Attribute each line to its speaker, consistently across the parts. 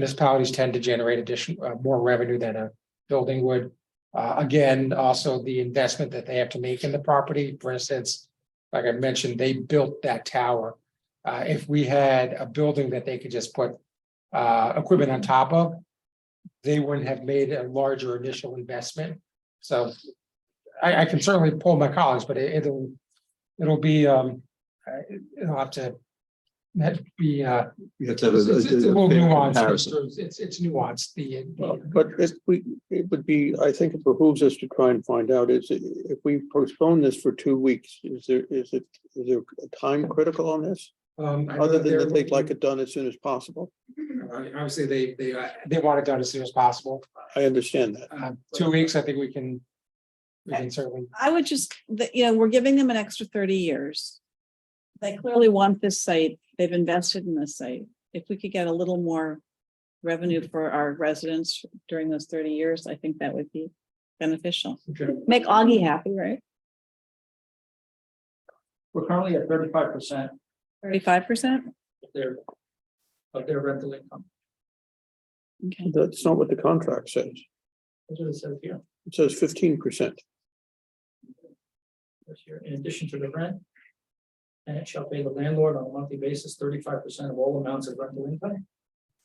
Speaker 1: municipalities tend to generate addition, uh, more revenue than a building would. Uh, again, also the investment that they have to make in the property, for instance, like I mentioned, they built that tower. Uh, if we had a building that they could just put uh, equipment on top of, they wouldn't have made a larger initial investment. So I, I can certainly pull my colleagues, but it- it'll, it'll be, um, uh, it'll have to that be, uh,
Speaker 2: You have to have
Speaker 1: it's,
Speaker 2: a-
Speaker 1: it's- it's a
Speaker 2: a-
Speaker 1: little
Speaker 2: a fair
Speaker 1: nuanced,
Speaker 2: comparison.
Speaker 1: it's, it's- it's nuanced, the.
Speaker 3: Well,
Speaker 1: the-
Speaker 3: But it, we, it would be, I think it behooves us to try and find out is, if we postpone this for two weeks, is there, is it, is there a time critical on this?
Speaker 1: um, I know
Speaker 3: Other than
Speaker 1: they're
Speaker 3: that they'd like
Speaker 1: looking-
Speaker 3: it done as soon as possible.
Speaker 1: I- Obviously, they, they, uh, they want it done as soon as possible,
Speaker 3: I understand that.
Speaker 1: uh, two weeks, I think we can. We can certainly,
Speaker 4: I would just, that, you know, we're giving them an extra thirty years. They clearly want this site. They've invested in this site. If we could get a little more revenue for our residents during those thirty years, I think that would be beneficial. Make Augie happy, right?
Speaker 5: We're currently at thirty-five percent
Speaker 4: Thirty-five percent?
Speaker 5: of their, of their rental income.
Speaker 4: Okay.
Speaker 3: That's not what the contract says.
Speaker 5: That's what it says here,
Speaker 3: It says fifteen percent.
Speaker 5: this year, in addition to the rent. And it shall pay the landlord on a monthly basis thirty-five percent of all amounts of rental income.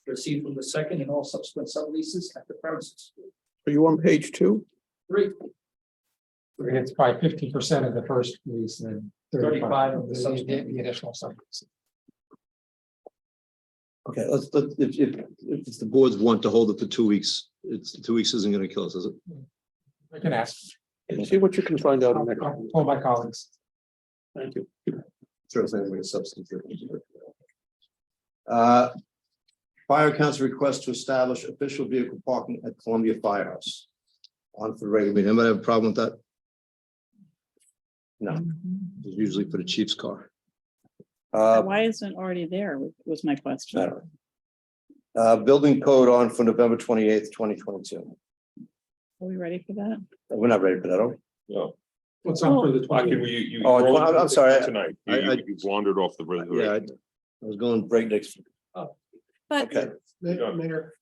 Speaker 5: Received from the second and all subsequent subleases at the premises.
Speaker 3: Are you on page two?
Speaker 5: Three,
Speaker 1: it's probably fifty percent of the first lease and.
Speaker 5: 35 of the
Speaker 1: The
Speaker 5: subsequent.
Speaker 1: the additional sublease.
Speaker 2: Okay, let's, let, if, if, if it's the board's want to hold it for two weeks, it's, two weeks isn't gonna kill us, is it?
Speaker 1: I can ask,
Speaker 3: See what you can find out.
Speaker 1: I'll
Speaker 3: in that.
Speaker 1: I'll pull my colleagues.
Speaker 3: Thank you.
Speaker 2: Sure, it's anything substantive. Uh, Fire council request to establish official vehicle parking at Columbia Firehouse. On for the regular meeting, anybody have a problem with that? No, it's usually for the chief's car. Uh,
Speaker 4: Why isn't it already there was- was my question.
Speaker 2: Better. uh, building code on for November twenty eighth, twenty twenty two.
Speaker 4: Are we ready for that?
Speaker 2: We're not ready for that, are we?
Speaker 6: No,
Speaker 1: What's
Speaker 4: on for
Speaker 1: the
Speaker 6: I can, you, you.
Speaker 2: Oh, I'm- I'm sorry, I-
Speaker 6: Tonight,
Speaker 2: I- I-
Speaker 6: you, you wandered off the
Speaker 2: Yeah, I
Speaker 6: reservation.
Speaker 2: I was going breakneck. speed.
Speaker 4: But
Speaker 2: Okay,
Speaker 6: Yeah.
Speaker 7: Mayor,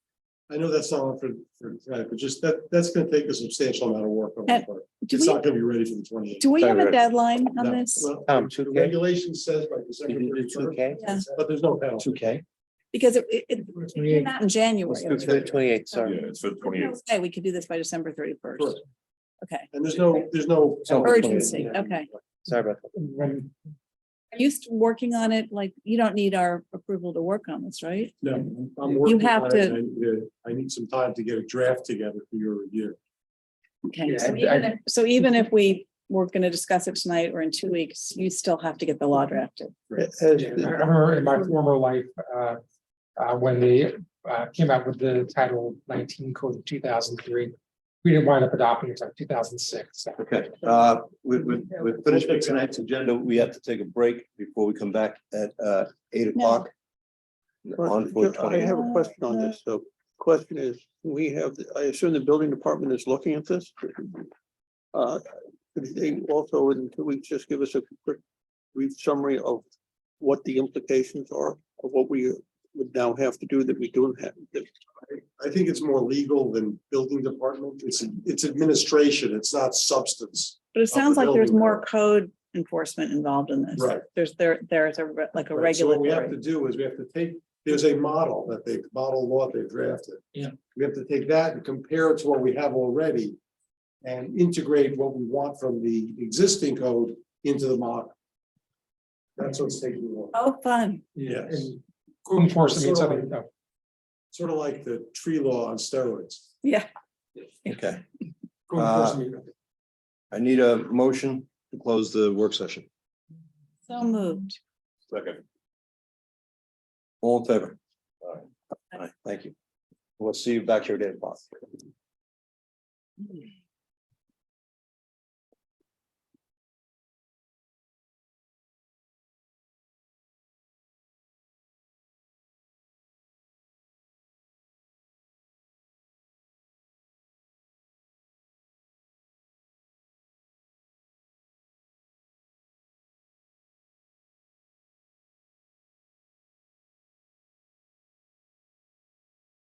Speaker 7: I know that's not on for, for, tonight, but just that, that's gonna take a substantial amount of work on my
Speaker 4: And
Speaker 7: part.
Speaker 4: do
Speaker 7: It's
Speaker 4: we,
Speaker 7: not gonna be ready for the twenty eighth.
Speaker 4: do we have a
Speaker 2: Sorry.
Speaker 4: deadline on
Speaker 2: No.
Speaker 4: this?
Speaker 7: The regulation says by December thirty first,
Speaker 4: Yeah,
Speaker 7: but there's no penalty.
Speaker 3: Two K.
Speaker 4: because it, it, it's not in January.
Speaker 3: Twenty-eight,
Speaker 6: Yeah,
Speaker 4: sorry.
Speaker 6: it's for twenty eight.
Speaker 4: Hey, we could do this by December thirty-first.
Speaker 7: Correct.
Speaker 4: Okay.
Speaker 7: And there's no, there's no.
Speaker 3: So-
Speaker 4: Urgency, okay.
Speaker 3: Oh, Sorry about that.
Speaker 1: When,
Speaker 4: Are you st- working on it? Like, you don't need our approval to work on this, right?
Speaker 7: No, I'm working
Speaker 4: have
Speaker 7: on it. I need to- I need some time to get a draft together for your review.
Speaker 4: Okay,
Speaker 1: Yeah,
Speaker 4: so
Speaker 1: I-
Speaker 4: even if, so even if we were gonna discuss it tonight or in two weeks, you still have to get the
Speaker 7: Mm-hmm.
Speaker 4: law drafted.
Speaker 1: I remember in my former life, uh, uh, when they, uh, came out with the title nineteen code of two thousand three. We didn't wind up adopting it until two thousand six, so.
Speaker 2: Okay, uh, we, we, we're finished with tonight's agenda. We have to take a break before we come back at, uh, eight o'clock. On for
Speaker 3: I
Speaker 2: twenty.
Speaker 3: have a question on this, so question is, we have, I assume the building department is looking at this? Uh, could they also in two weeks, just give us a quick brief summary of what the implications are of what we would now have to do that we don't have. that-
Speaker 7: I think it's more legal than building department. It's, it's administration. It's not substance.
Speaker 4: But it sounds like there's
Speaker 7: building
Speaker 4: more
Speaker 7: code.
Speaker 4: code enforcement involved in this.
Speaker 7: Right.
Speaker 4: There's, there, there's a, re- like a
Speaker 7: right? So What we have to
Speaker 4: regulatory.
Speaker 7: do is we have to take, there's a model that they, model law they drafted.
Speaker 5: Yeah.
Speaker 7: We have to take that and compare it to what we have already and integrate what we want from the existing code into the model. That's what's taking a while.
Speaker 4: Oh, fun.
Speaker 7: Yes.
Speaker 1: And code enforcement means something, no.
Speaker 7: Sort of like the tree law on steroids.
Speaker 4: Yeah.
Speaker 2: Okay,
Speaker 1: Code
Speaker 2: Uh,
Speaker 1: enforcement means-
Speaker 2: I need a motion to close the work session.
Speaker 4: So moved.
Speaker 6: Second.
Speaker 2: All in favor? All right, thank you. We'll see you back here at eight o'clock.